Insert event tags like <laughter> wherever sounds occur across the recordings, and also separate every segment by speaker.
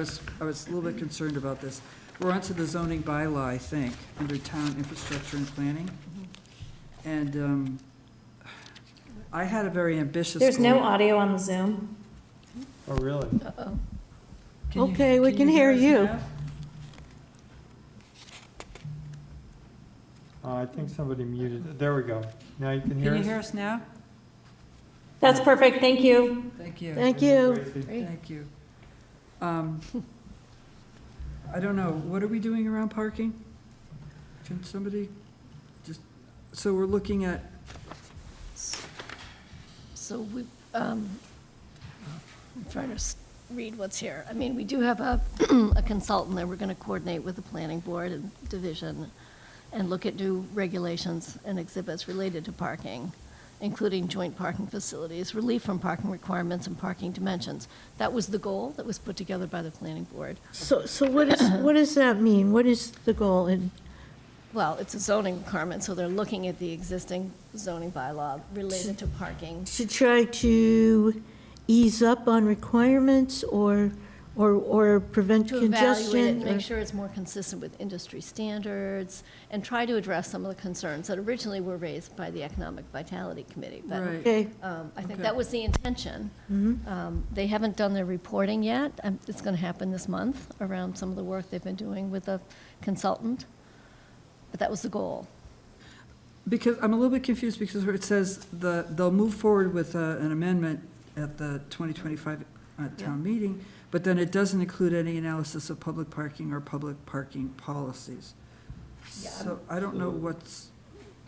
Speaker 1: was, I was a little bit concerned about this. We're onto the zoning bylaw, I think, under town infrastructure and planning. And um, I had a very ambitious.
Speaker 2: There's no
Speaker 1: goal.
Speaker 2: audio on the Zoom.
Speaker 3: Oh, really?
Speaker 1: Can you-
Speaker 4: Okay, we can hear
Speaker 1: us
Speaker 4: you.
Speaker 1: now?
Speaker 3: Uh, I think somebody muted, there we go. Now you can
Speaker 1: Can
Speaker 3: hear
Speaker 1: you hear
Speaker 3: us?
Speaker 1: us now?
Speaker 2: That's perfect, thank you.
Speaker 1: Thank you.
Speaker 4: Thank you.
Speaker 3: Gracie?
Speaker 1: Thank you. Um, I don't know, what are we doing around parking? Can somebody just, so we're looking at,
Speaker 5: So we, um, I'm trying to s- read what's here. I mean, we do have a <clears throat> a consultant that we're going to coordinate with the planning board and division and look at new regulations and exhibits related to parking, including joint parking facilities, relief from parking requirements and parking dimensions. That was the goal that was put together by the planning board.
Speaker 4: So, so what is, what does that mean? What is the goal in,
Speaker 5: Well, it's a zoning requirement, so they're looking at the existing zoning bylaw related to parking.
Speaker 4: to try to ease up on requirements or, or, or prevent
Speaker 5: To evaluate it,
Speaker 4: congestion?
Speaker 5: and
Speaker 4: or-
Speaker 5: make sure it's more consistent with industry standards, and try to address some of the concerns that originally were raised by the Economic Vitality Committee. But,
Speaker 1: right.
Speaker 4: Okay, mm-hmm.
Speaker 5: um, I think
Speaker 1: Okay.
Speaker 5: that was the intention. Um, They haven't done their reporting yet. Um, It's going to happen this month around some of the work they've been doing with a consultant. But that was the goal.
Speaker 1: Because I'm a little bit confused because where it says the, they'll move forward with uh, an amendment at the 2025 uh, town meeting, but then it doesn't include any analysis of public parking or public parking policies.
Speaker 5: Yeah,
Speaker 1: So I don't know what's,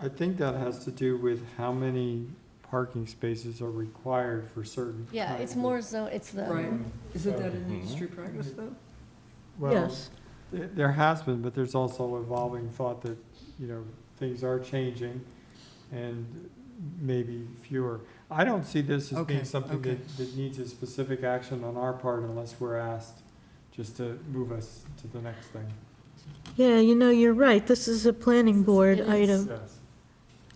Speaker 3: I think that has to do with how many parking spaces are required for certain.
Speaker 5: Yeah, it's
Speaker 3: kinds of-
Speaker 5: more so, it's
Speaker 1: right,
Speaker 5: the,
Speaker 1: isn't that an industry practice though?
Speaker 3: Well,
Speaker 4: yes.
Speaker 3: th- there has been, but there's also evolving thought that, you know, things are changing and maybe fewer. I don't see this as
Speaker 1: Okay,
Speaker 3: being something
Speaker 1: okay.
Speaker 3: that, that needs a specific action on our part unless we're asked just to move us to the next thing.
Speaker 4: Yeah, you know, you're right. This is a planning board
Speaker 5: It is.
Speaker 4: item.
Speaker 3: Yes.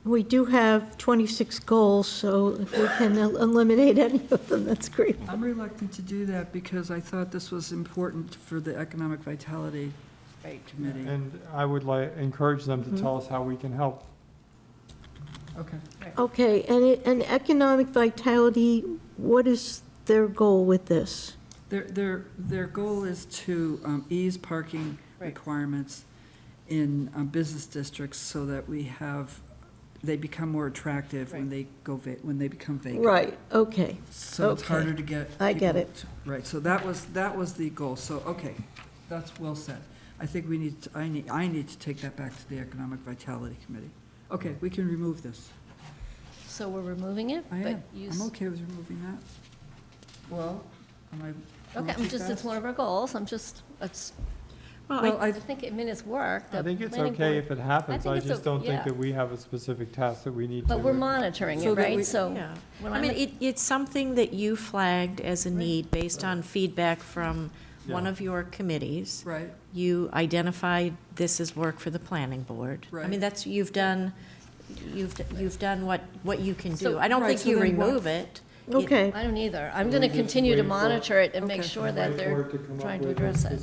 Speaker 4: We do have 26 goals, so if we can el- eliminate any of them, that's great.
Speaker 1: I'm reluctant to do that because I thought this was important for the Economic Vitality
Speaker 5: right.
Speaker 1: Committee.
Speaker 3: And I would like, encourage them
Speaker 4: Mm-hmm.
Speaker 3: to tell us how we can help.
Speaker 1: Okay.
Speaker 4: Okay, and, it- and economic vitality, what is their goal with this?
Speaker 1: Their, their, their goal is to um, ease parking
Speaker 5: Right.
Speaker 1: requirements in um, business districts so that we have, they become more attractive when
Speaker 5: Right.
Speaker 1: they go, va- when they become vacant.
Speaker 4: Right, okay.
Speaker 1: So it's
Speaker 4: Okay.
Speaker 1: harder to get.
Speaker 4: I get
Speaker 1: people to- Right, so that was, that was the goal, so, okay, that's well said. I think we need, to- I need, I need to take that back to the Economic Vitality Committee. Okay, we can remove this.
Speaker 5: So we're removing it,
Speaker 1: I
Speaker 5: but
Speaker 1: am, I'm
Speaker 5: use,
Speaker 1: okay with removing that. Well, am I?
Speaker 5: okay,
Speaker 1: going
Speaker 5: I'm
Speaker 1: too
Speaker 5: just, it's
Speaker 1: fast?
Speaker 5: one of our goals, I'm just, it's
Speaker 1: Well, I,
Speaker 5: I think it mean it's work. the
Speaker 3: I think it's
Speaker 5: planning
Speaker 3: okay
Speaker 5: board-
Speaker 3: if it happens,
Speaker 5: think
Speaker 3: I
Speaker 5: it's
Speaker 3: just
Speaker 5: o-
Speaker 3: don't think
Speaker 5: yeah.
Speaker 3: that we have a specific task that we need to.
Speaker 5: But we're monitoring
Speaker 1: So
Speaker 5: it,
Speaker 1: that we-
Speaker 5: right? So,
Speaker 6: Yeah,
Speaker 5: when
Speaker 6: I
Speaker 5: I'm
Speaker 6: mean,
Speaker 5: at-
Speaker 6: it, it's something that you flagged as a need based on feedback from one
Speaker 3: Yeah.
Speaker 6: of your committees.
Speaker 1: right,
Speaker 6: You identified this as work for the planning board. I
Speaker 1: Right.
Speaker 6: mean, that's, you've done, you've, you've done what, what you can do.
Speaker 5: So-
Speaker 6: I don't
Speaker 1: Right,
Speaker 6: think
Speaker 1: so
Speaker 6: you
Speaker 1: then what-
Speaker 6: remove it. It-
Speaker 4: Okay.
Speaker 5: I don't either. I'm
Speaker 3: We're
Speaker 5: going to
Speaker 3: just
Speaker 5: continue to
Speaker 3: waiting for-
Speaker 5: monitor it and make
Speaker 1: Okay.
Speaker 5: sure that they're trying to address it.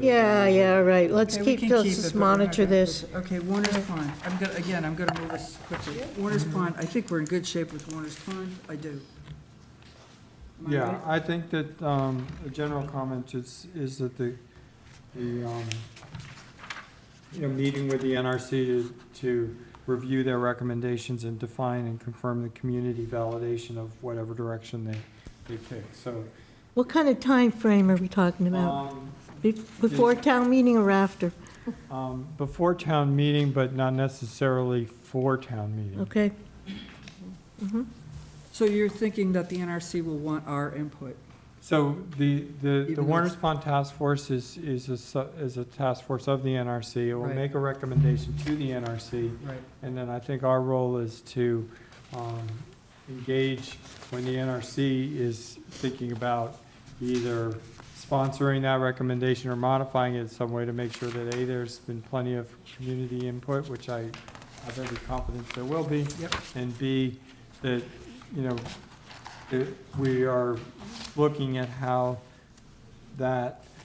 Speaker 4: Yeah, yeah, right, let's
Speaker 1: Okay, we can
Speaker 4: keep, let's
Speaker 1: keep it,
Speaker 4: just
Speaker 1: but we're not
Speaker 4: monitor
Speaker 1: gonna
Speaker 4: this.
Speaker 1: put the- Okay, Warner's Pond, I'm gonna, again, I'm gonna move this quickly. Warner's
Speaker 3: Mm-hmm.
Speaker 1: Pond, I think we're in good shape with Warner's Pond, I do. Am I
Speaker 3: Yeah,
Speaker 1: right?
Speaker 3: I think that, um, a general comment is, is that the, the, um, you know, meeting with the NRC to, to review their recommendations and define and confirm the community validation of whatever direction they, they pick, so.
Speaker 4: What kind of time frame are we talking about?
Speaker 3: um,
Speaker 4: Be- Before town meeting or after?
Speaker 3: um, Before town meeting, but not necessarily for town meeting.
Speaker 4: Okay, Mm-hmm.
Speaker 1: So you're thinking that the NRC will want our input?
Speaker 3: So the, the,
Speaker 1: Even
Speaker 3: the
Speaker 1: though
Speaker 3: Warner
Speaker 1: it's-
Speaker 3: Pond Task Force is, is a, su- is a task force of the NRC. It will
Speaker 1: Right.
Speaker 3: make a recommendation to the NRC,
Speaker 1: Right.
Speaker 3: and then I think our role is to, um, engage when the NRC is thinking about either sponsoring that recommendation or modifying it in some way to make sure that, A, there's been plenty of community input, which I have every confidence there will be.
Speaker 1: Yep.
Speaker 3: And B, that, you know, that we are looking at how that